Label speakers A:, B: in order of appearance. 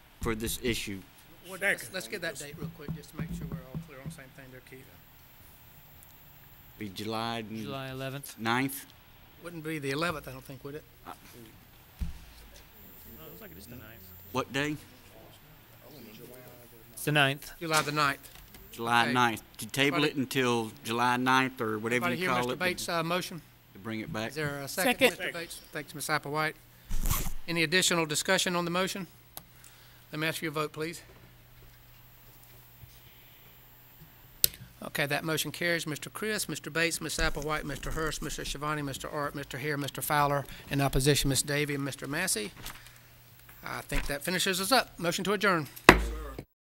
A: for this issue.
B: What-
C: Second.
B: Let's, let's get that date real quick, just to make sure we're all clear on the same thing there, Keith.
A: Be July
D: July 11th.
A: 9th?
B: Wouldn't be the eleventh, I don't think, would it?
A: What day?
D: It's the 9th.
B: July the ninth.
A: July
B: Okay.
A: 9th. To table
B: Everybody-
A: it until July 9th or whatever
B: Everybody
A: you
B: hear
A: call
B: Mr.
A: it.
B: Bates' uh, motion?
A: To bring it back.
B: Is there a second, Mr. Bates? Thanks, Ms. Applewhite. Any additional discussion on the motion? Let me ask for your vote, please. Okay, that motion carries. Mr. Chris, Mr. Bates, Ms. Applewhite, Mr. Hurst, Mr. Shivani, Mr. Art, Mr. Hare, Mr. Fowler. In opposition, Ms. Davy and Mr. Massey. I think that finishes us up. Motion to adjourn.